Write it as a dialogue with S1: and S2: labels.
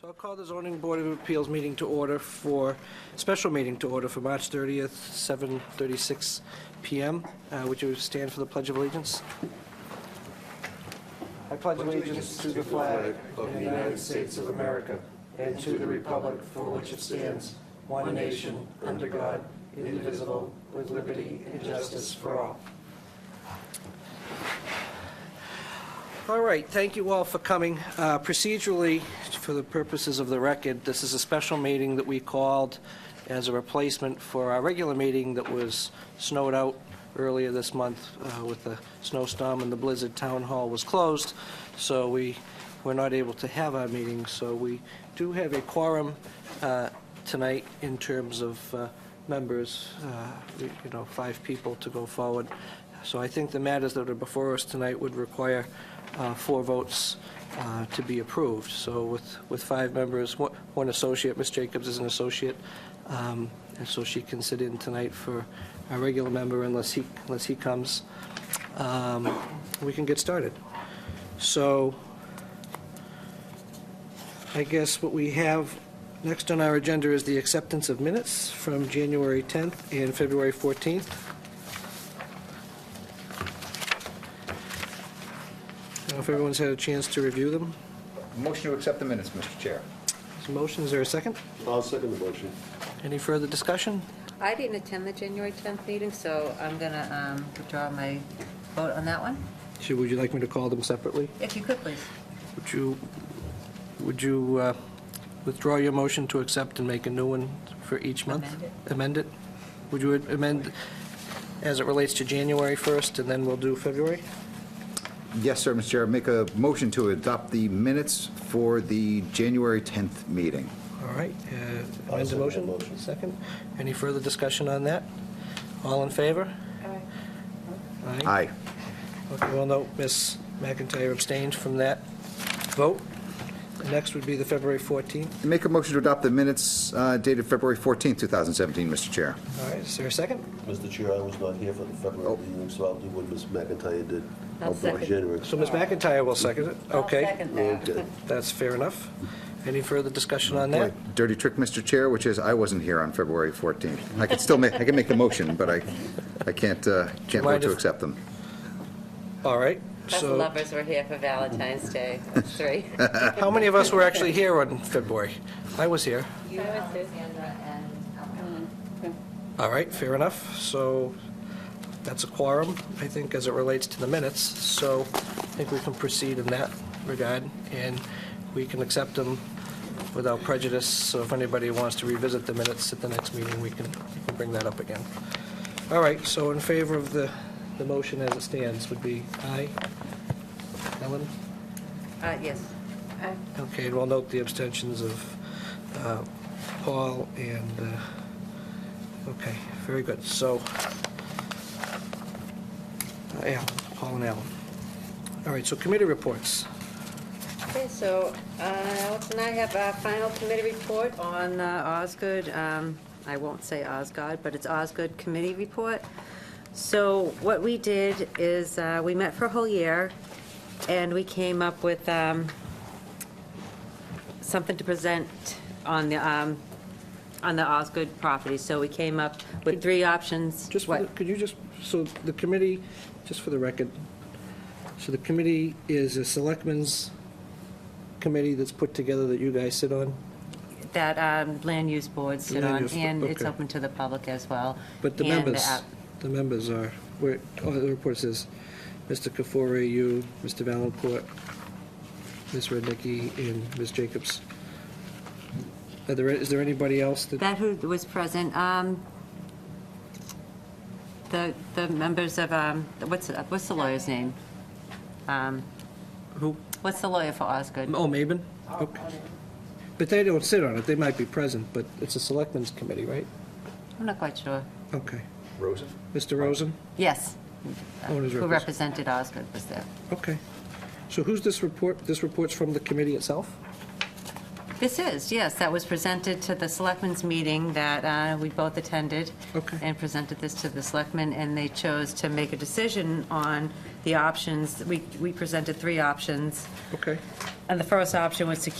S1: So I'll call the zoning board of appeals meeting to order for, special meeting to order for March 30th, 7:36 PM. Uh, Would you stand for the Pledge of Allegiance? I pledge allegiance to the flag of the United States of America and to the republic for which it stands, one nation, under God, indivisible, with liberty and justice for all. All right, thank you all for coming. Uh, Procedurally, for the purposes of the record, this is a special meeting that we called as a replacement for our regular meeting that was snowed out earlier this month uh, with the snowstorm and the blizzard. Town Hall was closed, so we were not able to have our meeting. So we do have a quorum uh, tonight in terms of uh, members, uh, you you know, five people to go forward. So I think the matters that are before us tonight would require uh, four votes uh, to be approved. So with, with five members, one one associate, Ms. Jacobs is an associate, um, and so she can sit in tonight for a regular member unless he, unless he comes. Um, We can get started. So I guess what we have next on our agenda is the acceptance of minutes from January 10th and February 14th. I don't know if everyone's had a chance to review them.
S2: Motion to accept the minutes, Mr. Chair.
S1: Is a motion, is there a second?
S3: I'll second the motion.
S1: Any further discussion?
S4: I didn't attend the January 10th meeting, so I'm going to withdraw my vote on that one.
S1: Should, would you like me to call them separately?
S4: If you could, please.
S1: Would you, would you uh, withdraw your motion to accept and make a new one for each month?
S4: Amend
S1: Amend it? Would you amend as it relates to January 1st, and then we'll do February?
S2: Yes, sir, Mr. Chair. Make a motion to adopt the minutes for the January 10th meeting.
S1: All right, uh, amend the
S3: second
S1: motion?
S3: that motion.
S1: Second. Any further discussion on that? All in favor? Aye.
S2: Aye.
S1: Okay, well, no, Ms. McIntyre abstained from that vote. Next would be the February 14th.
S2: Make a motion to adopt the minutes uh, dated February 14th, 2017, Mr. Chair.
S1: All right, is there a second?
S3: Mr. Chair, I was not here for the February
S2: Oh.
S3: meeting, so I'll do what Ms. McIntyre did.
S4: I'll second.
S3: January.
S1: So Ms. McIntyre will second it?
S4: I'll
S1: Okay,
S4: second that.
S3: Okay.
S1: that's fair enough. Any further discussion on that?
S2: Dirty trick, Mr. Chair, which is I wasn't here on February 14th. I can still make, I can make the motion, but I, I can't, uh, can't vote
S1: Mind
S2: to
S1: if-
S2: accept them.
S1: All right,
S4: Us
S1: so
S4: lovers were here for Valentine's Day, us three.
S1: how many of us were actually here on February? I was here.
S4: You were too.
S1: All right, fair enough. So that's a quorum, I think, as it relates to the minutes. So I think we can proceed in that regard, and we can accept them without prejudice. So if anybody wants to revisit the minutes at the next meeting, we can we can bring that up again. All right, so in favor of the, the motion as it stands would be aye. Ellen?
S4: Uh, Yes.
S1: Okay, and we'll note the abstentions of uh, Paul and, uh, okay, very good. So, uh, Alan, Paul and Alan. All right, so committee reports.
S4: Okay, so uh, Alex and I have our final committee report on uh, Osgood, um, I won't say Osgood, but it's Osgood Committee Report. So what we did is, uh, we met for a whole year, and we came up with um, something to present on the, um, on the Osgood property. So we came up with three options.
S1: Just, for the-
S4: What?
S1: could you just, so the committee, just for the record, so the committee is a selectmen's committee that's put together that you guys sit on?
S4: That um, land use boards sit
S1: Land
S4: on,
S1: use bo-
S4: and it's
S1: okay.
S4: open to the public as well.
S1: But the
S4: and
S1: members,
S4: app-
S1: the members are, where, oh, the report says, Mr. Kafori, you, Mr. Valencourt, Ms. Rednicki, and Ms. Jacobs. Are there, is there anybody else that,
S4: That who was present, um, the, the members of, um, what's, what's the lawyer's name? Um,
S1: who,
S4: What's the lawyer for Osgood?
S1: oh, Maben? Okay. But they don't sit on it, they might be present, but it's a selectmen's committee, right?
S4: I'm not quite sure.
S1: Okay.
S2: Rosen?
S1: Mr. Rosen?
S4: Yes.
S1: Owner's
S4: Uh, Who
S1: representative.
S4: represented Osgood was there.
S1: Okay. So who's this report, this report's from the committee itself?
S4: This is, yes, that was presented to the selectmen's meeting that uh, we both attended.
S1: Okay.
S4: And presented this to the selectmen, and they chose to make a decision on the options. We, we presented three options,
S1: Okay.
S4: and the first option was to